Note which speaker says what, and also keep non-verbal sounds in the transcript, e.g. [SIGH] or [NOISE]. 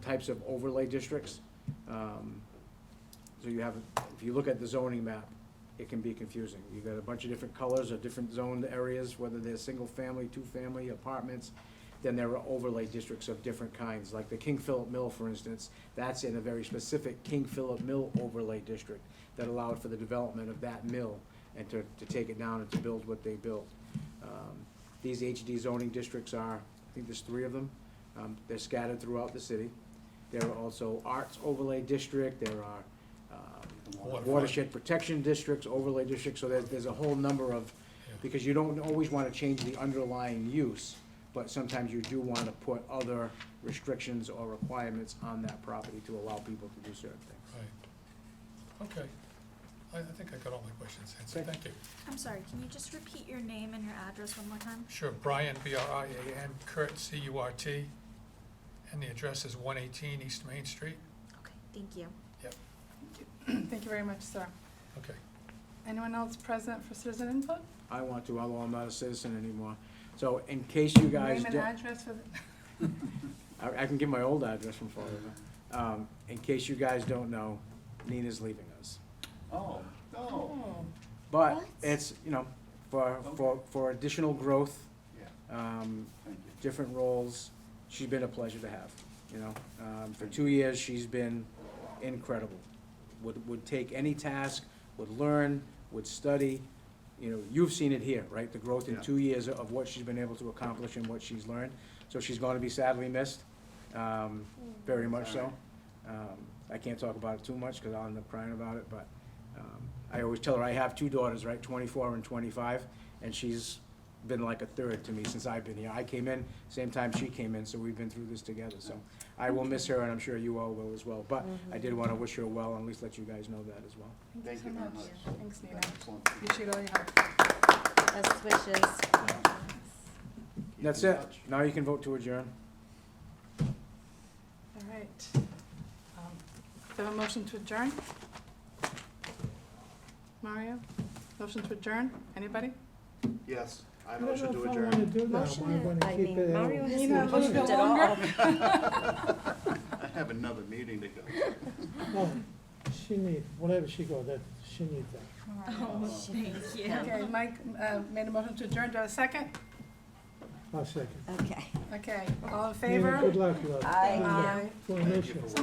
Speaker 1: types of overlay districts. Um, So you have, if you look at the zoning map, it can be confusing. You've got a bunch of different colors or different zoned areas, whether they're single-family, two-family apartments. Then there are overlay districts of different kinds, like the King Philip Mill, for instance. That's in a very specific King Philip Mill overlay district that allowed for the development of that mill and to, to take it down and to build what they built. Um, These HD zoning districts are, I think there's three of them. Um, They're scattered throughout the city. There are also arts overlay district, there are um,
Speaker 2: Waterfront.
Speaker 1: watershed protection districts, overlay districts, so there's, there's a whole number of, because you don't always want to change the underlying use, but sometimes you do want to put other restrictions or requirements on that property to allow people to do certain things.
Speaker 2: Right. Okay. I, I think I got all my questions answered.
Speaker 1: Okay.
Speaker 2: Thank you.
Speaker 3: I'm sorry, can you just repeat your name and your address one more time?
Speaker 2: Sure, Brian, B-R-I-A-N, Kurt, C-U-R-T, and the address is one eighteen East Main Street?
Speaker 3: Okay, thank you.
Speaker 2: Yep,
Speaker 4: Thank you very much, sir.
Speaker 2: okay.
Speaker 4: Anyone else present for citizen input?
Speaker 1: I want to, although I'm not a citizen anymore. So in case you guys
Speaker 4: Name and
Speaker 1: don't.
Speaker 4: address for the,
Speaker 1: I, I can give my old address from Florida. Um, in case you guys don't know, Nina's leaving us.
Speaker 5: Oh, no,
Speaker 4: oh,
Speaker 1: But
Speaker 3: What?
Speaker 1: it's, you know, for, for, for additional growth,
Speaker 5: yeah,
Speaker 1: um,
Speaker 5: thank you.
Speaker 1: different roles, she's been a pleasure to have, you know? Um, for two years, she's been incredible. Would, would take any task, would learn, would study, you know, you've seen it here, right? The growth in
Speaker 5: Yeah.
Speaker 1: two years of what she's been able to accomplish and what she's learned. So she's gonna be sadly missed, um, very much so.
Speaker 5: Sorry.
Speaker 1: Um, I can't talk about it too much, cause I'll end up crying about it, but, um, I always tell her, I have two daughters, right, twenty-four and twenty-five, and she's been like a third to me since I've been here. I came in, same time she came in, so we've been through this together, so I will miss her, and I'm sure you all will as well, but I did wanna wish her well, and at least let you guys know that as well.
Speaker 4: thank
Speaker 5: Thank
Speaker 4: you so
Speaker 5: you very
Speaker 4: much.
Speaker 5: much.
Speaker 4: Thanks, Nina.
Speaker 5: Excellent.
Speaker 4: Appreciate all your help.
Speaker 6: Best wishes.
Speaker 5: Keep
Speaker 1: That's
Speaker 5: in
Speaker 1: it,
Speaker 5: touch.
Speaker 1: now you can vote to adjourn.
Speaker 4: All right. Um, Do I have a motion to adjourn? Mario? Motion to adjourn? Anybody?
Speaker 5: Yes, I
Speaker 7: I don't
Speaker 5: motion
Speaker 7: know
Speaker 5: to
Speaker 7: if I wanna
Speaker 5: adjourn.
Speaker 7: do that,
Speaker 6: Motion,
Speaker 7: we're gonna
Speaker 6: I
Speaker 7: keep
Speaker 6: mean,
Speaker 7: it. out.
Speaker 6: Mario
Speaker 4: You know,
Speaker 6: hasn't
Speaker 4: a
Speaker 6: moved
Speaker 4: little bit
Speaker 6: at all.
Speaker 4: longer.
Speaker 7: [LAUGHS]
Speaker 5: [LAUGHS] I have another meeting to go.
Speaker 7: No, She need, whatever she go, that, she need that.
Speaker 3: [LAUGHS] Oh, thank you.
Speaker 4: Okay, Mike uh, made a motion to adjourn. Do I have a second?
Speaker 7: I'll second.
Speaker 6: Okay.
Speaker 4: Okay, all in
Speaker 7: Nina, Good
Speaker 4: favor?
Speaker 7: luck, love.
Speaker 6: Aye.
Speaker 7: Well, no
Speaker 5: Thank you
Speaker 7: shit.
Speaker 5: for